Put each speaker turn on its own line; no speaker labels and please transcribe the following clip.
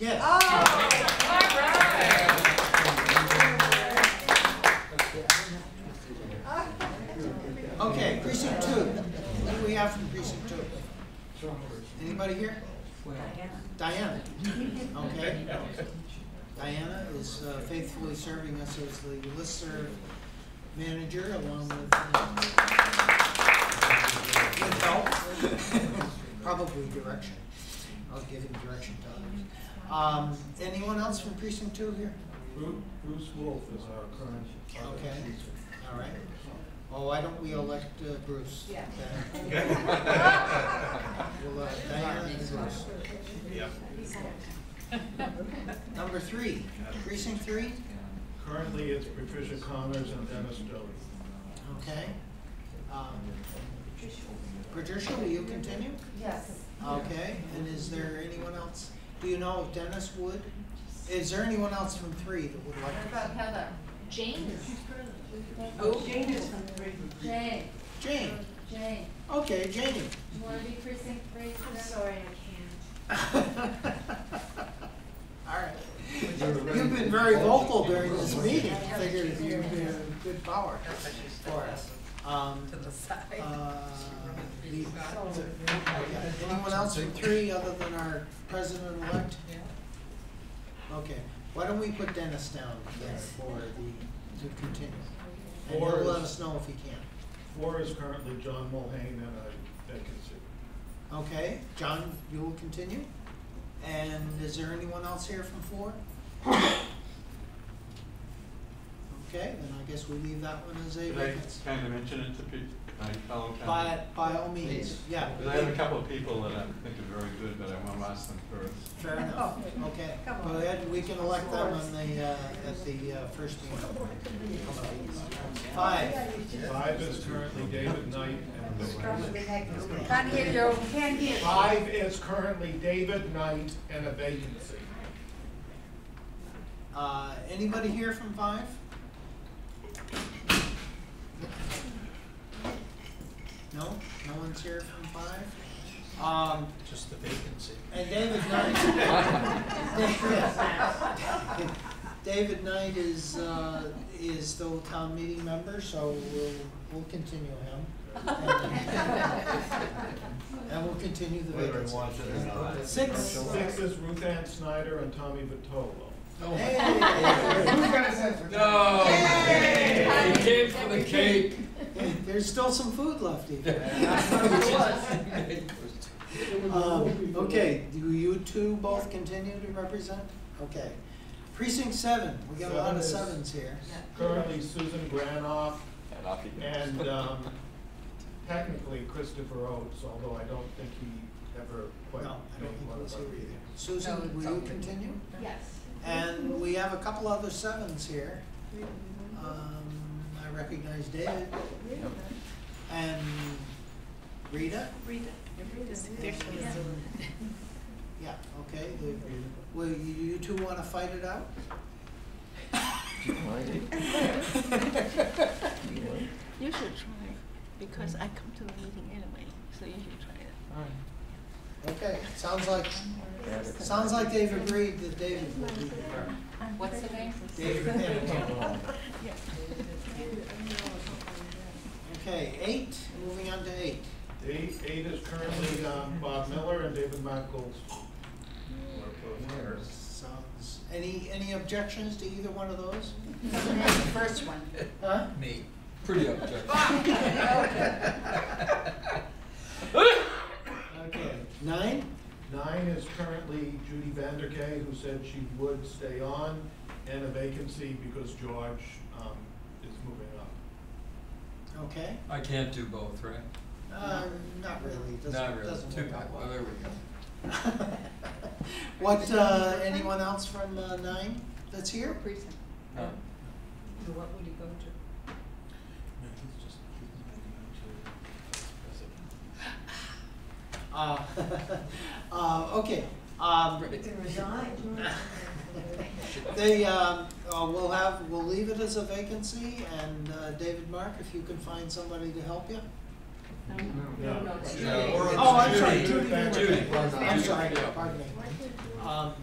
Yes.
Ah.
Okay, precinct two. What do we have from precinct two? Anybody here? Diana. Okay. Diana is uh, faithfully serving us as the listserv manager along with uh, with help, probably direction. I'll give him direction to others. Um, anyone else from precinct two here?
Bru- Bruce Wolf is our current. our
Okay.
current
All right. Well, Oh, why don't we elect uh, Bruce?
Yeah.
Then
teacher.
We'll, uh, Diana and Bruce. Number three, precinct three,
Currently, it's Patricia Connors and Dennis Doty.
okay. Um, Patricia, will you continue?
Yes.
Okay, and is there anyone else? Do you know if Dennis would? Is there anyone else from three that would
What
like?
about Heather?
Jane
Oh, Jane is from three.
Jane,
Jane,
Jane,
okay, Janie.
do you wanna be precinct three
I'm
today?
sorry, I can't.
All right. You've been very vocal during this meeting, figured you'd be a good power for us. Um,
to the side.
uh, the- Anyone else from three other than our president-elect? Okay, why don't we put Dennis down there for the, to continue? And
Or
he'll let
is-
us know if he can.
Four is currently John Mulhane and a vacancy.
Okay, John, you will continue? And is there anyone else here from four? Okay, then I guess we leave that one as a
Did I
vacancy.
kind of mention it to pe- my fellow
By,
council?
by all means, yeah.
Because I have a couple of people that I think are very good, but I want to ask them first.
Fair enough, okay.
Oh, Come on.
Well, then we can elect them on the, uh, at the uh, first meeting. Five,
Five is currently David Knight and a
Can't hear you. Can't hear.
Five is currently David Knight and a vacancy.
uh, anybody here from five? No, no one's here from five? Um,
Just the vacancy.
and David Knight. David Knight is, uh, is still a town meeting member, so we'll, we'll continue him. And we'll continue the
Whether I
vacancy.
want it or not.
Six.
Six is Ruth Ann Snyder and Tommy Vitolo.
Hey,
No!
Yay!
He came Oh, for the cake.
There's still some food left even. Um, Okay, do you two both continue to represent? Okay. Precinct seven, we got a lot of
Seven
sevens here.
Currently Susan Granoff
And off you go.
and um, technically Christopher Oates, although I don't think he
No,
ever quite
I
made
don't think
one
it
of
was
our
here either.
meetings.
No,
Susan,
it's
will you
something.
continue?
Yes.
And we have a couple other sevens here. Um, I recognize David and Rita. Yeah, okay. the- Well, you you two want to fight it out?
You should try, because I come to the meeting anyway, so you should try it.
Okay, sounds like, sounds like they've agreed that David will be there.
What's the name?
David Hamilton. Okay, eight, moving on to eight.
Eight, eight is currently um, Bob Miller and David Michaels.
Sounds, any, any objections to either one of those?
The first one.
Huh?
Me, pretty objective.
Okay, nine?
Nine is currently Judy Vanderkay, who said she would stay on, and a vacancy because George um, is moving up.
Okay,
I can't do both, right?
uh, not really, doesn't,
Not really,
doesn't
too
work
bad,
out
well, there
well.
we go.
What, uh, anyone else from, uh, nine that's here?
Precinct.
No.
What would you go to?
Uh, uh, okay, um, They, um, uh, we'll have, we'll leave it as a vacancy, and, uh, David Mark, if you can find somebody to help you.
No,
no, that's
Yeah.
Judy.
Or
Oh, I'm
Judy.
sorry,
Judy
Judy,
Van-
Judy.
Judy.
I'm sorry, pardon me. Um,